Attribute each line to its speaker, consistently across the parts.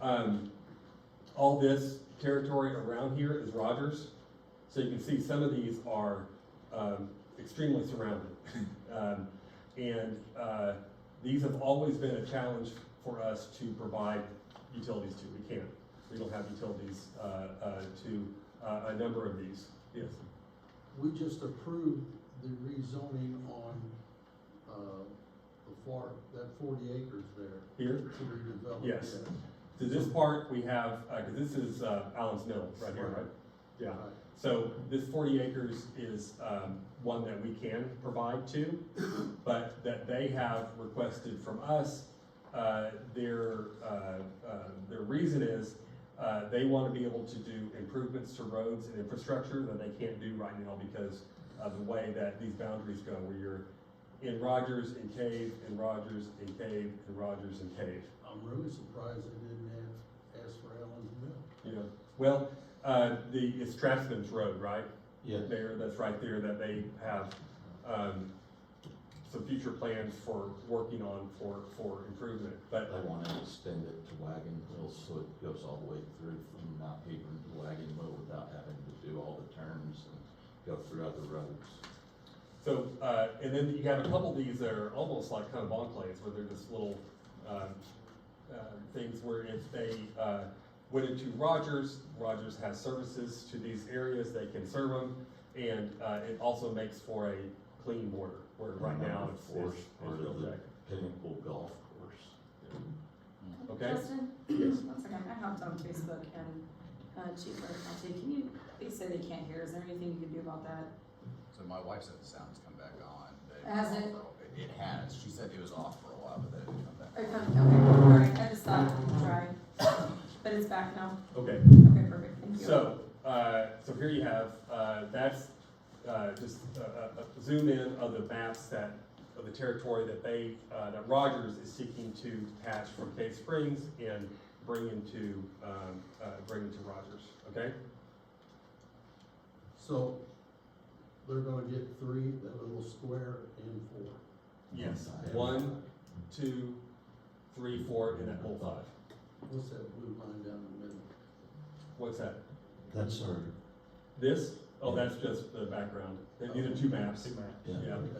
Speaker 1: Um, all this territory around here is Rogers, so you can see some of these are, um, extremely surrounded. Um, and, uh, these have always been a challenge for us to provide utilities to, we can't, we don't have utilities, uh, uh, to, uh, a number of these, yes.
Speaker 2: We just approved the rezoning on, uh, the far, that forty acres there
Speaker 1: Here,
Speaker 2: to redevelop.
Speaker 1: Yes.
Speaker 2: that.
Speaker 1: To this part, we have, uh, 'cause this is, uh, Allen's Mill, right here, right? Yeah,
Speaker 2: Right.
Speaker 1: so this forty acres is, um, one that we can provide to, but that they have requested from us. Uh, their, uh, uh, their reason is, uh, they wanna be able to do improvements to roads and infrastructure that they can't do right now because of the way that these boundaries go, where you're in Rogers and Cave, and Rogers and Cave, and Rogers and Cave.
Speaker 2: I'm really surprised they didn't ask, ask for Allen's Mill.
Speaker 1: Yeah, well, uh, the, it's Strathman's Road, right?
Speaker 3: Yeah.
Speaker 1: There, that's right there that they have, um, some future plans for working on for, for improvement. But
Speaker 3: They want to extend it to Wagon Hill, so it goes all the way through from Mount Hebron to Wagon Hill without having to do all the turns and go through other roads.
Speaker 1: So, uh, and then you got a couple of these that are almost like kind of enclaves, where they're just little, um, uh, things where if they, uh, went into Rogers, Rogers has services to these areas, they can serve them. And, uh, it also makes for a clean border, where right now it's,
Speaker 3: Forest
Speaker 1: it's,
Speaker 3: part
Speaker 1: it's real
Speaker 3: of the
Speaker 1: jagged.
Speaker 3: Pinnacle Golf Course.
Speaker 1: Okay.
Speaker 4: Justin, one second, I hopped on Facebook and, uh, Chief Burke, I'll say, can you, they say they can't hear, is there anything you can do about that?
Speaker 5: So my wife said the sound's come back on. but was
Speaker 4: Has
Speaker 5: off
Speaker 4: it?
Speaker 5: for a- It has. She said it was off for a while, but then it come back.
Speaker 4: Okay, okay, all right, I just thought, I'd try, but it's back now,
Speaker 1: Okay,
Speaker 4: okay, perfect, thank you.
Speaker 1: So, uh, so here you have, uh, that's, uh, just a, a- a zoom in of the maps that, of the territory that they, uh, that Rogers is seeking to patch from Cave Springs and bring into, um, uh, bring into Rogers, okay?
Speaker 2: So they're gonna get three, that little square and four.
Speaker 1: Yes. One, two, three, four, and that whole five.
Speaker 2: What's that blue line down the middle?
Speaker 1: What's that?
Speaker 3: That's our,
Speaker 1: This? Oh, that's just the background. These are two maps.
Speaker 3: yeah.
Speaker 1: Yeah.
Speaker 2: Okay.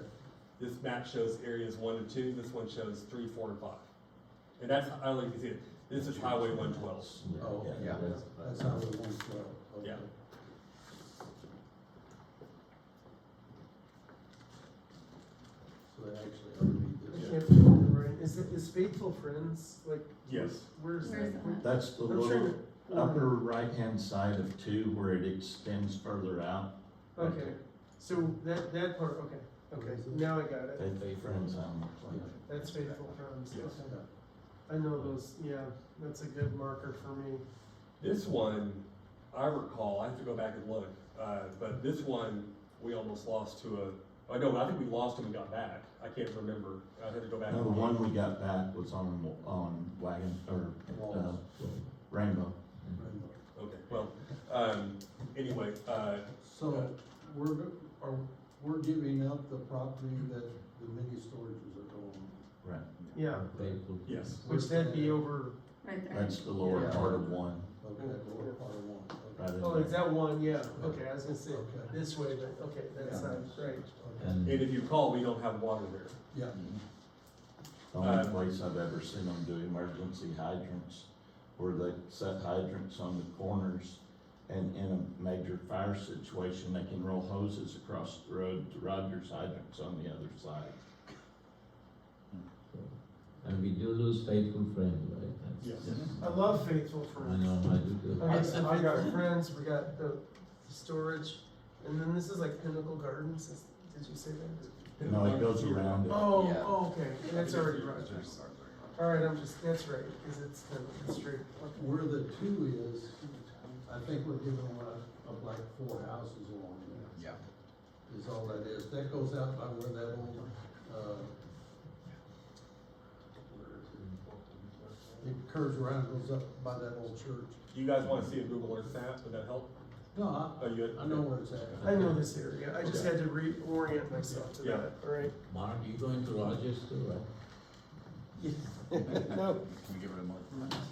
Speaker 1: This map shows areas one and two, this one shows three, four, and five. And that's, I don't know if you can see it, this is Highway one twelve.
Speaker 2: Oh, okay.
Speaker 5: Yeah.
Speaker 2: That's- That's how we want to go. Okay.
Speaker 1: Yeah. So
Speaker 2: They actually already did
Speaker 1: Yeah.
Speaker 2: that.
Speaker 6: Right, is it, is Faithful Friends, like?
Speaker 1: Yes.
Speaker 6: Where's
Speaker 4: Where's
Speaker 6: that?
Speaker 4: that?
Speaker 3: That's the
Speaker 6: I'm trying
Speaker 3: little
Speaker 6: to-
Speaker 3: upper right-hand side of two where it extends further out.
Speaker 6: Okay, so that, that part, okay, okay, now I got it,
Speaker 3: They, they friends on the plate.
Speaker 6: that's Faithful Friends,
Speaker 1: Yes.
Speaker 6: okay. I know those, yeah, that's a good marker for me.
Speaker 1: This one, I recall, I have to go back and look, uh, but this one, we almost lost to a, oh, no, I think we lost and we got back. I can't remember. I had to go back.
Speaker 3: No,
Speaker 1: and
Speaker 3: the
Speaker 1: look.
Speaker 3: one we got back was on, on Wagon, or, uh,
Speaker 2: Rainbow.
Speaker 3: Rainbow.
Speaker 1: Okay, well, um, anyway, uh,
Speaker 2: So we're, go- are, we're giving up the property that the mini storages are going.
Speaker 3: Right.
Speaker 6: Yeah,
Speaker 1: yes,
Speaker 6: which that'd be over,
Speaker 4: Right there.
Speaker 3: That's the lower
Speaker 6: Yeah.
Speaker 3: part of one,
Speaker 2: Okay, lower part of one.
Speaker 3: right in
Speaker 6: oh,
Speaker 3: there.
Speaker 6: is that one, yeah, okay, I was gonna say,
Speaker 2: Okay.
Speaker 6: this way, but, okay, that's
Speaker 2: Yeah.
Speaker 6: not, right.
Speaker 2: Okay.
Speaker 1: and
Speaker 3: And the
Speaker 1: if you recall, we don't have water there.
Speaker 2: Yeah,
Speaker 3: only
Speaker 1: uh,
Speaker 3: place I've ever seen them do emergency hydrants, where they set hydrants on the corners, and in a major fire situation, they can roll hoses across the road to Rogers hydrants on the other side.
Speaker 7: And we do lose faithful friends, right? That's-
Speaker 1: Yes.
Speaker 6: I love Faithful
Speaker 7: I
Speaker 6: Friends.
Speaker 7: know, I do too.
Speaker 6: Okay, so I got Friends, we got the storage, and then this is like Pinnacle Gardens, is, did you say that?
Speaker 3: No, it goes around it.
Speaker 6: Oh,
Speaker 5: Yeah.
Speaker 6: oh, okay, that's already Rogers.
Speaker 5: Rogers.
Speaker 6: All right, I'm just, that's right, because it's, the- it's straight.
Speaker 2: where the two is, I think we're giving up, up like four houses along there,
Speaker 5: Yeah.
Speaker 2: is all that is. That goes out by where that old, uh, it curves around, goes up by that old church.
Speaker 1: Do you guys wanna see a Google Earth map? Would that help?
Speaker 2: No, I,
Speaker 1: Oh, you had-
Speaker 2: I know where it's at.
Speaker 6: I know this area, I just had to reorient myself to
Speaker 1: Yeah.
Speaker 6: that, all right?
Speaker 7: Mark, you going to Rogers too, right?
Speaker 5: Can
Speaker 6: No,
Speaker 5: we get rid of Mark?